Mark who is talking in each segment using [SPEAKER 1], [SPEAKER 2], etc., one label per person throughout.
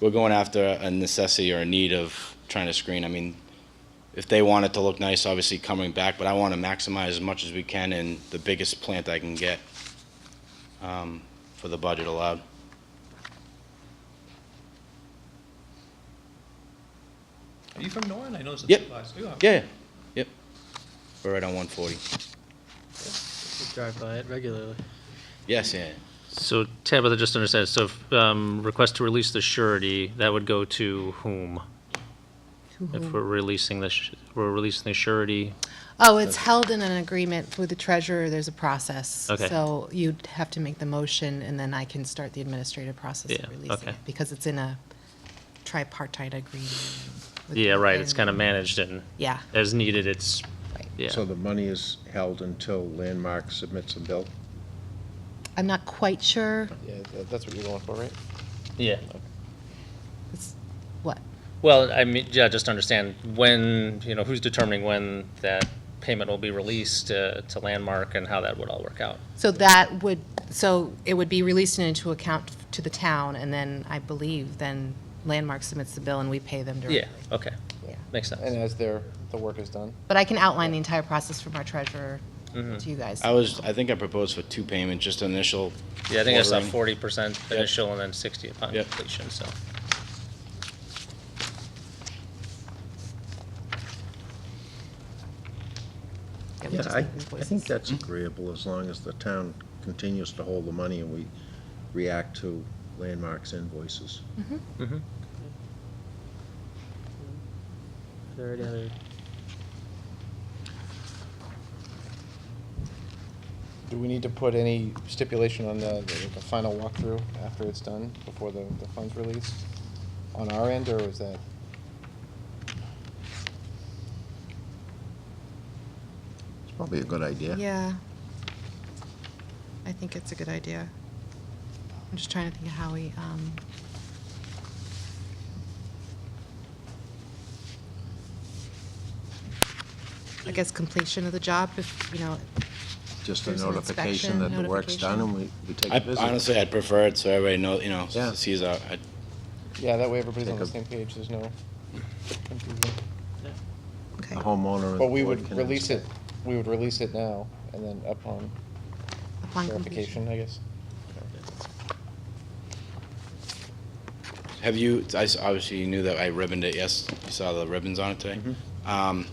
[SPEAKER 1] we're going after a necessity or a need of trying to screen. I mean, if they want it to look nice, obviously coming back, but I want to maximize as much as we can in the biggest plant I can get um, for the budget allowed.
[SPEAKER 2] Are you from Norton? I know it's a
[SPEAKER 1] Yep.
[SPEAKER 2] supervisor. You are.
[SPEAKER 1] Yeah, yep. We're right on 140.
[SPEAKER 3] We drive by it regularly.
[SPEAKER 1] Yes, yeah.
[SPEAKER 4] So Tabitha, just understand, so if, um, request to release the surety, that would go to whom? If we're releasing the, sh- we're releasing the surety,
[SPEAKER 5] Oh, it's held in an agreement with the treasurer. There's a process.
[SPEAKER 4] Okay.
[SPEAKER 5] So you'd have to make the motion, and then I can start the administrative process
[SPEAKER 4] Yeah,
[SPEAKER 5] of releasing
[SPEAKER 4] okay.
[SPEAKER 5] it, because it's in a tripartite agreement. with
[SPEAKER 4] yeah, right, it's
[SPEAKER 5] Norton.
[SPEAKER 4] kind of managed and
[SPEAKER 5] Yeah,
[SPEAKER 4] as needed, it's,
[SPEAKER 5] right.
[SPEAKER 4] yeah.
[SPEAKER 6] So the money is held until Landmark submits a bill?
[SPEAKER 5] I'm not quite sure,
[SPEAKER 7] Yeah, tha- that's what you're going for, right?
[SPEAKER 4] Yeah.
[SPEAKER 5] it's, what,
[SPEAKER 4] Well, I mean, yeah, just understand when, you know, who's determining when that payment will be released uh, to Landmark and how that would all work out.
[SPEAKER 5] so that would, so it would be released into account to the town, and then I believe then Landmark submits the bill and we pay them
[SPEAKER 4] Yeah,
[SPEAKER 5] directly.
[SPEAKER 4] okay,
[SPEAKER 5] Yeah.
[SPEAKER 4] makes
[SPEAKER 7] And
[SPEAKER 4] sense.
[SPEAKER 7] as their, the work is done.
[SPEAKER 5] But I can outline the entire process from our treasurer
[SPEAKER 4] Mm-hmm.
[SPEAKER 5] to you guys.
[SPEAKER 1] I was, I think I proposed for two payments, just initial.
[SPEAKER 4] Yeah, I think I saw
[SPEAKER 1] ordering.
[SPEAKER 4] forty percent initial and then sixty upon
[SPEAKER 1] Yep.
[SPEAKER 4] completion, so.
[SPEAKER 5] Yeah, we
[SPEAKER 6] Yeah,
[SPEAKER 5] just
[SPEAKER 6] I,
[SPEAKER 5] need
[SPEAKER 6] I think
[SPEAKER 5] invoices.
[SPEAKER 6] that's agreeable, as long as the town continues to hold the money and we react to Landmark's invoices.
[SPEAKER 3] Are there any other
[SPEAKER 7] Do we need to put any stipulation on the, the the final walkthrough after it's done, before the, the funds released? On our end, or is that?
[SPEAKER 6] It's probably a good idea.
[SPEAKER 5] Yeah. I think it's a good idea. I'm just trying to think of how we, um, I guess completion of the job, if, you know,
[SPEAKER 6] Just a
[SPEAKER 5] There's an
[SPEAKER 6] notification
[SPEAKER 5] inspection,
[SPEAKER 6] that the work's done and we, we take a
[SPEAKER 1] I
[SPEAKER 6] visit.
[SPEAKER 1] honestly, I'd prefer it so everybody knows, you know,
[SPEAKER 6] Yeah.
[SPEAKER 1] sees our, I-
[SPEAKER 7] Yeah, that way everybody's
[SPEAKER 6] Take
[SPEAKER 7] on the
[SPEAKER 6] a-
[SPEAKER 7] same page, there's no confusion.
[SPEAKER 5] okay.
[SPEAKER 6] The homeowner and the
[SPEAKER 7] But we
[SPEAKER 6] board
[SPEAKER 7] would
[SPEAKER 6] can
[SPEAKER 7] release it,
[SPEAKER 6] inspect.
[SPEAKER 7] we would release it now, and then upon
[SPEAKER 5] upon completion.
[SPEAKER 7] verification, I guess.
[SPEAKER 1] Have you, I s- obviously you knew that I ribboned it, yes, you saw the ribbons on it today. Um,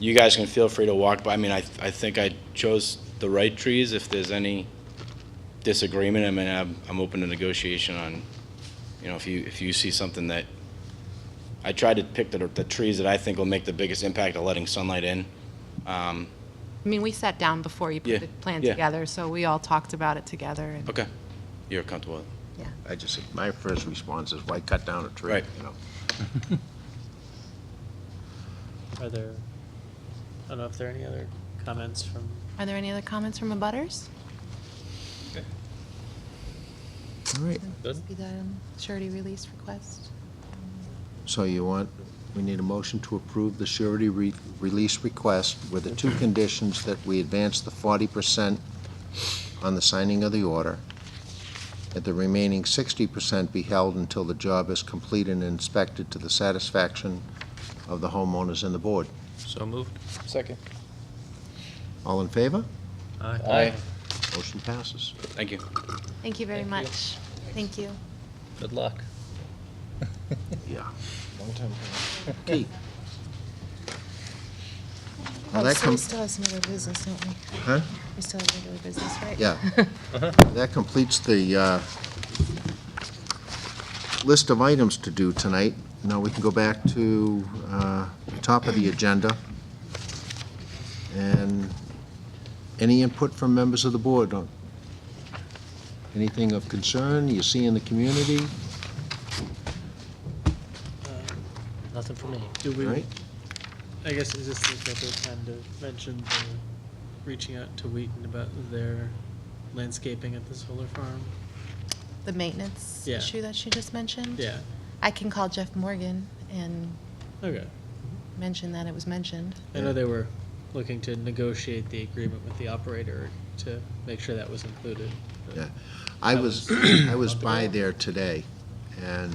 [SPEAKER 1] You guys can feel free to walk by, I mean, I, th- I think I chose the right trees, if there's any disagreement, I mean, I'm, I'm open to negotiation on, you know, if you, if you see something that, I tried to pick the, the trees that I think will make the biggest impact of letting sunlight in. Um,
[SPEAKER 5] I mean, we sat down before you
[SPEAKER 1] Yeah,
[SPEAKER 5] put the plan
[SPEAKER 1] yeah.
[SPEAKER 5] together, so we all talked about it together and,
[SPEAKER 1] Okay, you're comfortable with it?
[SPEAKER 5] yeah.
[SPEAKER 6] I just, my first response is why cut down a tree,
[SPEAKER 1] Right.
[SPEAKER 6] you know?
[SPEAKER 3] are there I don't know if there are any other comments from
[SPEAKER 5] Are there any other comments from abutters?
[SPEAKER 6] All right,
[SPEAKER 4] Good.
[SPEAKER 5] Be the um, surety release request?
[SPEAKER 6] so you want, we need a motion to approve the surety re- release request with the two conditions that we advance the forty percent on the signing of the order, that the remaining sixty percent be held until the job is complete and inspected to the satisfaction of the homeowners and the board.
[SPEAKER 4] So moved.
[SPEAKER 7] Second.
[SPEAKER 6] All in favor?
[SPEAKER 7] Aye.
[SPEAKER 6] Motion passes.
[SPEAKER 1] Thank you.
[SPEAKER 5] Thank you very much. Thank you.
[SPEAKER 4] Good luck.
[SPEAKER 6] Yeah.
[SPEAKER 7] Long time coming.
[SPEAKER 6] Okay. Well,
[SPEAKER 5] Oh,
[SPEAKER 6] that
[SPEAKER 5] so we
[SPEAKER 6] com-
[SPEAKER 5] still have some other business, don't we?
[SPEAKER 6] Huh?
[SPEAKER 5] We still have regular business, right?
[SPEAKER 6] Yeah. That completes the uh, list of items to do tonight. Now we can go back to uh, the top of the agenda. And any input from members of the board on anything of concern you see in the community,
[SPEAKER 4] Nothing for me.
[SPEAKER 3] do we
[SPEAKER 6] right?
[SPEAKER 3] I guess is this the appropriate time to mention the reaching out to Wheaton about their landscaping at the solar farm?
[SPEAKER 5] The maintenance
[SPEAKER 3] Yeah.
[SPEAKER 5] issue that she just mentioned?
[SPEAKER 3] Yeah.
[SPEAKER 5] I can call Jeff Morgan and
[SPEAKER 3] Okay.
[SPEAKER 5] mention that it was mentioned.
[SPEAKER 3] I know they were looking to negotiate the agreement with the operator to make sure that was included. but-
[SPEAKER 6] Yeah. I was, I was by there today, and